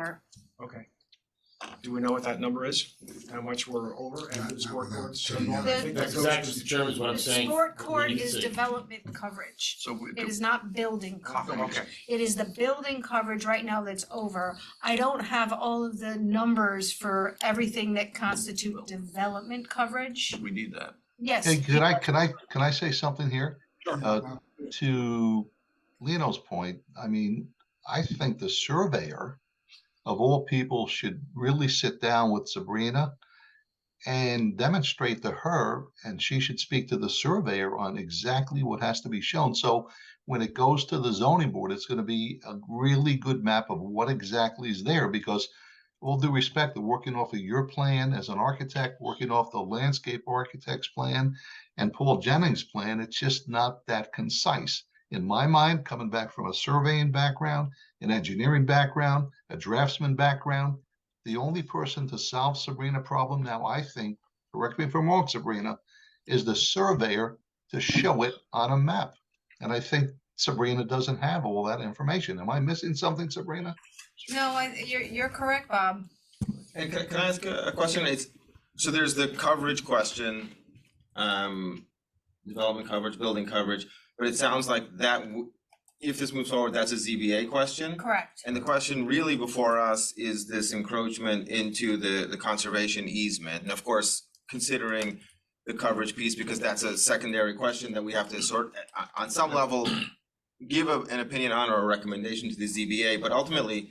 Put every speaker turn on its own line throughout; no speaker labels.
Or-
Okay. Do we know what that number is? How much we're over and who's
Not- not
work
without
orders?
saying
I
that.
think that
That's
goes
exactly,
to.
Mr. Chairman, is what I'm
The
saying.
sport
We
court
need to
is
say-
development coverage.
So we
It
do,
is not building coverage.
Okay,
It is the building coverage right now that's over. I don't have all of the numbers for everything that constitute development coverage.
we need that.
Yes.
Hey, could I, could I, can I say something here?
Sure.
Uh, To Lino's point, I mean, I think the surveyor of all people should really sit down with Sabrina and demonstrate to her, and she should speak to the surveyor on exactly what has to be shown. So when it goes to the zoning board, it's gonna be a really good map of what exactly is there, because all due respect, they're working off of your plan as an architect, working off the landscape architect's plan and Paul Jennings' plan, it's just not that concise. In my mind, coming back from a surveying background, an engineering background, a draftsman background, the only person to solve Sabrina problem now, I think, correct me if I'm wrong, Sabrina, is the surveyor to show it on a map. And I think Sabrina doesn't have all that information. Am I missing something, Sabrina?
No, I, you're, you're correct, Bob.
And can, can I ask a, a question? It's, so there's the coverage question, um, development coverage, building coverage, but it sounds like that, w- if this moves forward, that's a ZBA question.
Correct.
And the question really before us is this encroachment into the, the conservation easement, and of course, considering the coverage piece, because that's a secondary question that we have to sort, on, on some level, give a- an opinion on or a recommendation to the ZBA, but ultimately,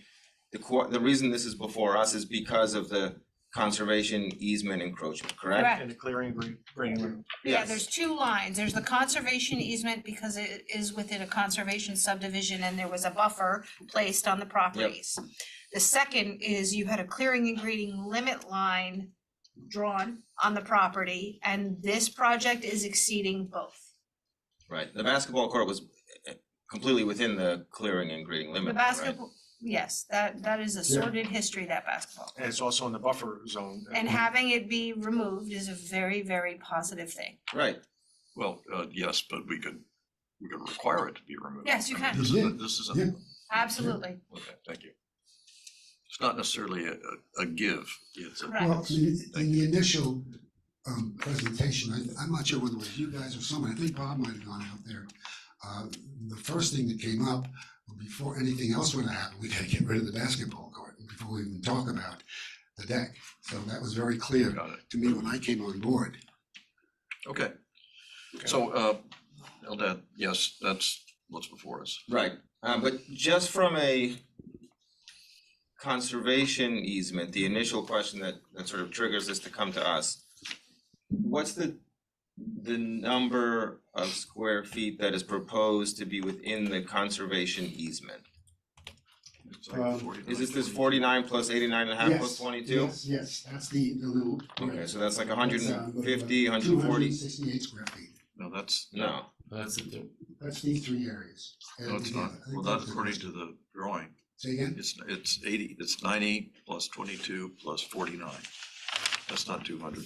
the qu- the reason this is before us is because of the conservation easement encroachment, correct?
Correct.
and the clearing green, green room.
Yeah,
Yes.
there's two lines. There's the conservation easement because it is within a conservation subdivision and there was a buffer placed on the properties. The second is you had a clearing and grading limit line drawn on the property and this project is exceeding both.
Right, the basketball court was eh, completely within the clearing and grading
The
limit, right?
basketball, yes, that, that is a sordid history, that basketball.
And it's also in the buffer zone.
And having it be removed is a very, very positive thing.
Right,
Well, uh, yes, but we could, we could require it to be removed.
Yes, you
I mean,
can.
This
Yeah.
is, this is, a-
Absolutely.
okay, thank you. It's not necessarily a, a- a give, it's a,
Correct.
Well, in the- in the initial um presentation, I I'm not sure whether it was you guys or someone, I think Bob might have gone out there. Uh the first thing that came up, before anything else would have happened, we gotta get rid of the basketball court before we even talk about the deck. So that was very clear
got it,
to me when I came on board.
okay. So, uh, Eldad, yes, that's what's before us.
right, um, but just from a conservation easement, the initial question that, that sort of triggers this to come to us. What's the, the number of square feet that is proposed to be within the conservation easement?
It's like
Um,
49.
Is this this forty-nine plus eighty-nine and a half plus
Yes,
twenty-two?
Yes, yes, that's the the little.
Okay, so that's like a hundred
That's, uh,
and fifty, a hundred and
Two hundred and
forty?
sixty-eight square feet,
No, that's,
No,
That's the thing.
that's these three areas. uh,
no, it's not, well, that's according to the drawing,
Say again?
it's, it's eighty, it's ninety plus twenty-two plus forty-nine. That's not two hundred.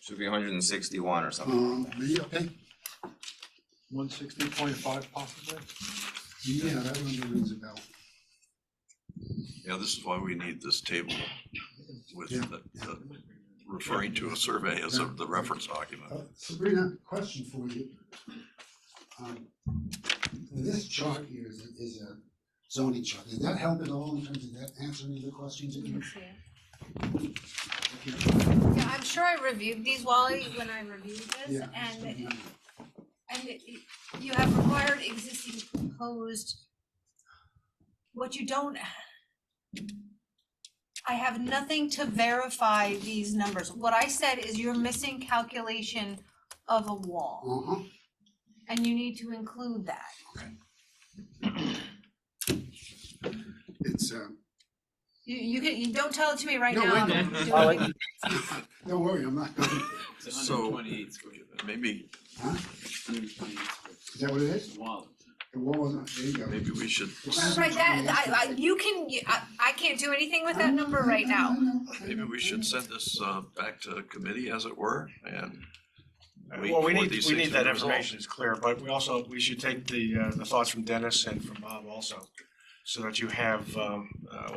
should be hundred and sixty-one or something.
Um, maybe, okay,
One sixty point five possibly?
yeah, that one rings a bell.
Yeah, this is why we need this table with
Yeah.
the- the- referring to a survey as a- the reference document.
Uh, Sabrina, question for you. Um, This chart here is, a- is a zoning chart, did that help at all in terms of that answering the questions that you? okay,
Yeah, I'm sure I reviewed these, Wally, when I reviewed this,
Yeah.
and, and it- it- you have required existing proposed. What you don't. I have nothing to verify these numbers. What I said is you're missing calculation of a wall,
Uh-huh,
and you need to include that.
it's, um,
You, you can, you don't tell it to me right
No,
now.
wait,
I'm
no.
doing
I'll
it.
let you-
uh, don't worry, I'm not, going.
It's a
So-
128 square feet.
Maybe,
huh,
128 square feet.
is that what it is?
Wow.
The wall was not, there you go.
maybe we should,
Right, right, that, I, I, you can, I, I can't do anything with that number right now.
maybe we should send this uh, back to committee, as it were, and Wait
Well, we
for
need,
these
we
things
need that
to be resolved.
information, it's clear, but we also, we should take the, uh, the thoughts from Dennis and from Bob also. so that you have, um, uh,